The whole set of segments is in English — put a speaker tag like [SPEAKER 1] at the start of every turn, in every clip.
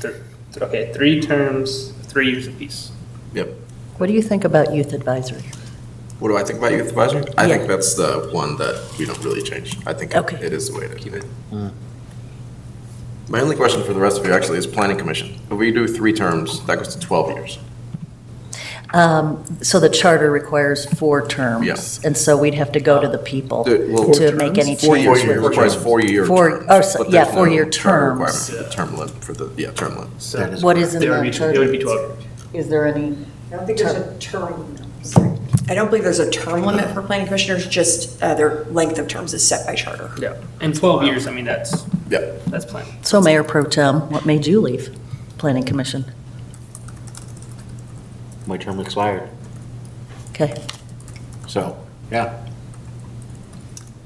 [SPEAKER 1] th- th- okay, three terms, three years apiece.
[SPEAKER 2] Yep.
[SPEAKER 3] What do you think about youth advisory?
[SPEAKER 2] What do I think about youth advisory? I think
[SPEAKER 3] Yeah.
[SPEAKER 2] that's the one that we don't really change. I think
[SPEAKER 3] Okay.
[SPEAKER 2] it is the way to keep it. My only question for the rest of you actually is planning commission. If we do three terms, that goes to 12 years.
[SPEAKER 3] Um, So the charter requires four terms.
[SPEAKER 2] Yes.
[SPEAKER 3] And so we'd have to go to the people
[SPEAKER 2] Dude, well- Four
[SPEAKER 3] to make any
[SPEAKER 2] Four
[SPEAKER 3] change.
[SPEAKER 2] years
[SPEAKER 3] with-
[SPEAKER 2] requires four-year
[SPEAKER 3] Four-
[SPEAKER 2] terms.
[SPEAKER 3] oh, so-
[SPEAKER 2] but
[SPEAKER 3] yeah,
[SPEAKER 2] there's
[SPEAKER 3] four-year
[SPEAKER 2] no charter
[SPEAKER 3] terms.
[SPEAKER 2] requirement for Term limit for the, yeah, term limits.
[SPEAKER 1] So
[SPEAKER 4] That is
[SPEAKER 3] What is in
[SPEAKER 1] They would be,
[SPEAKER 3] that
[SPEAKER 1] it would be
[SPEAKER 3] charter?
[SPEAKER 1] twelve. years.
[SPEAKER 3] Is there any,
[SPEAKER 5] I don't think there's a term. limit. I don't believe there's a term limit for planning commissioners, just uh, their length of terms is set by charter.
[SPEAKER 1] Yeah, and twelve years, I mean, that's,
[SPEAKER 2] Yeah.
[SPEAKER 1] that's plenty.
[SPEAKER 3] so Mayor Pro Tem, what made you leave Planning Commission?
[SPEAKER 4] My term expired,
[SPEAKER 3] Okay.
[SPEAKER 4] so, yeah.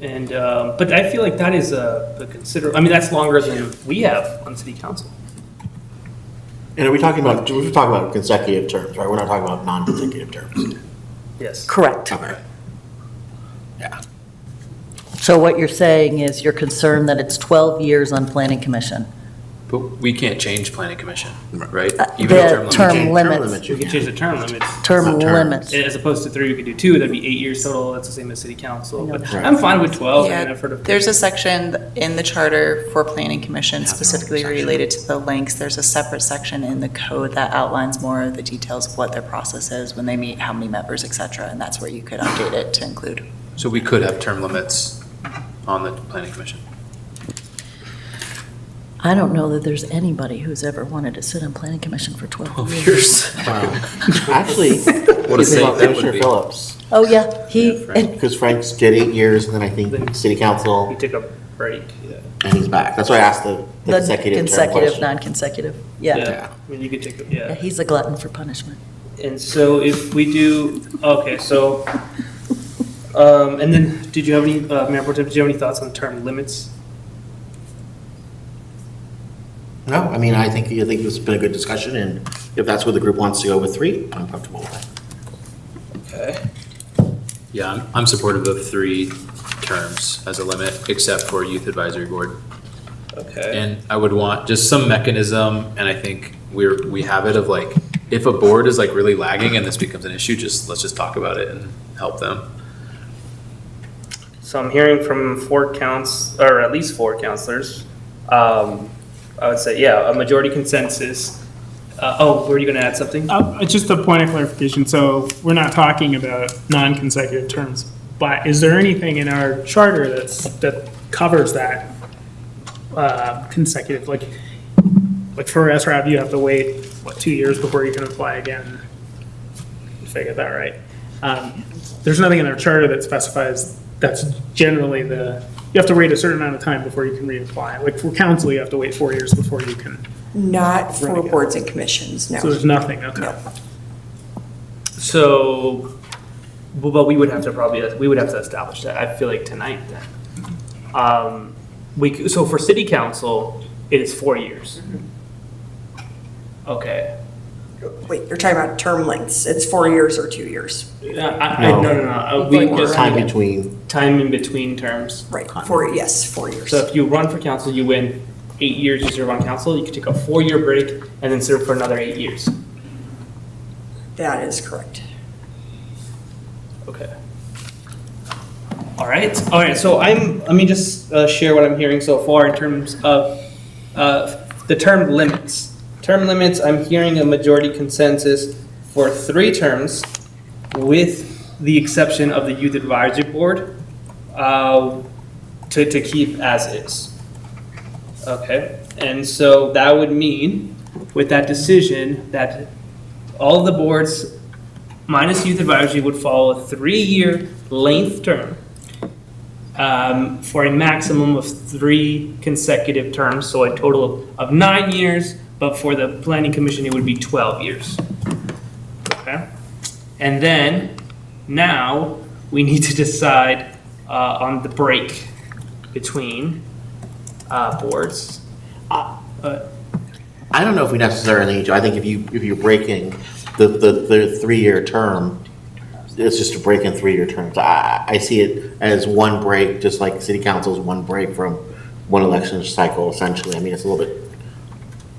[SPEAKER 1] And, um, but I feel like that is a a consider, I mean, that's longer than we have on city council.
[SPEAKER 4] And are we talking about, we're talking about consecutive terms, right? We're not talking about non-consecutive terms.
[SPEAKER 1] Yes.
[SPEAKER 3] Correct.
[SPEAKER 2] Okay. Yeah.
[SPEAKER 3] So what you're saying is you're concerned that it's 12 years on Planning Commission?
[SPEAKER 6] But we can't change planning commission, right?
[SPEAKER 3] Uh,
[SPEAKER 6] Even
[SPEAKER 3] the
[SPEAKER 6] if term limit.
[SPEAKER 3] Term limits.
[SPEAKER 1] We could change the term limits.
[SPEAKER 3] Term
[SPEAKER 4] Not term.
[SPEAKER 3] limits?
[SPEAKER 1] As opposed to three, we could do two, that'd be eight years total, that's the same as city council. But
[SPEAKER 4] Right.
[SPEAKER 1] I'm fine with twelve, I mean,
[SPEAKER 7] Yeah,
[SPEAKER 1] I've heard of.
[SPEAKER 7] There's a section in the charter for planning commission specifically related to the lengths. There's a separate section in the code that outlines more of the details of what their process is, when they meet, how many members, et cetera, and that's where you could update it to include.
[SPEAKER 6] So we could have term limits on the planning commission.
[SPEAKER 3] I don't know that there's anybody who's ever wanted to sit on Planning Commission for 12 years.
[SPEAKER 4] Actually, you think
[SPEAKER 6] What a
[SPEAKER 4] about
[SPEAKER 6] save that would
[SPEAKER 4] Commissioner
[SPEAKER 6] be.
[SPEAKER 4] Phillips,
[SPEAKER 3] Oh, yeah, he,
[SPEAKER 6] Yeah,
[SPEAKER 3] and
[SPEAKER 4] because Frank's did eight years, and then I
[SPEAKER 1] Then-
[SPEAKER 4] think city
[SPEAKER 1] We
[SPEAKER 4] council,
[SPEAKER 1] took a break.
[SPEAKER 4] and he's back. That's why I asked the the
[SPEAKER 3] the
[SPEAKER 4] consecutive term
[SPEAKER 3] consecutive,
[SPEAKER 4] question.
[SPEAKER 3] non-consecutive, yeah.
[SPEAKER 1] I mean, you could take, a
[SPEAKER 3] Yeah,
[SPEAKER 1] yeah.
[SPEAKER 3] He's a glutton for punishment.
[SPEAKER 1] And so if we do, okay, so, um, and then, did you have any, uh, Mayor Portem, did you have any thoughts on term limits?
[SPEAKER 4] No, I mean, I think, I think it's been a good discussion, and if that's where the group wants to go with three, I'm comfortable with that.
[SPEAKER 6] Yeah, I'm, I'm supportive of three terms as a limit, except for youth advisory board.
[SPEAKER 1] Okay.
[SPEAKER 6] And I would want just some mechanism, and I think we're, we have it of like, if a board is like really lagging and this becomes an issue, just, let's just talk about it and help them.
[SPEAKER 1] So I'm hearing from four counts, or at least four counselors. Um, I would say, yeah, a majority consensus. Uh, oh, were you gonna add something?
[SPEAKER 8] Uh, Just a point of clarification, so we're not talking about non-consecutive terms, but is there anything in our charter that's, that covers that uh, consecutive, like, like for SRAB, you have to wait, what, two years before you can apply again? If I get that right. Um, There's nothing in our charter that specifies, that's generally the, you have to wait a certain amount of time before you can reapply. Like for council, you have to wait four years before you can,
[SPEAKER 5] Not for
[SPEAKER 8] Renegade.
[SPEAKER 5] boards and commissions,
[SPEAKER 8] so
[SPEAKER 5] no.
[SPEAKER 8] there's nothing, okay.
[SPEAKER 5] No.
[SPEAKER 1] So, well, but we would have to probably, we would have to establish that, I feel like tonight then. Um, we, c- so for city council, it is four years. Okay.
[SPEAKER 5] Wait, you're talking about term lengths. It's four years or two years.
[SPEAKER 1] I, I, no, no, no, uh, we
[SPEAKER 5] Like
[SPEAKER 1] just.
[SPEAKER 4] Time between,
[SPEAKER 1] Time in between terms.
[SPEAKER 5] Right, four, yes, four years.
[SPEAKER 1] So if you run for council, you win eight years you serve on council, you could take a four-year break and then serve for another eight years.
[SPEAKER 5] That is correct.
[SPEAKER 1] Okay. All right, all right, so I'm, let me just uh, share what I'm hearing so far in terms of uh, the term limits. Term limits, I'm hearing a majority consensus for three terms with the exception of the youth advisory board uh, to, to keep as is. Okay, and so that would mean with that decision that all of the boards minus youth advisory would follow a three-year length term um, for a maximum of three consecutive terms, so a total of nine years, but for the planning commission, it would be 12 years. Okay? And then, now, we need to decide uh, on the break between uh, boards. Uh, uh,
[SPEAKER 4] I don't know if we necessarily need to, I think if you, if you're breaking the, the, the three-year term, it's just a break in three-year terms. I, I see it as one break, just like city council's one break from one election cycle essentially. I mean, it's a little bit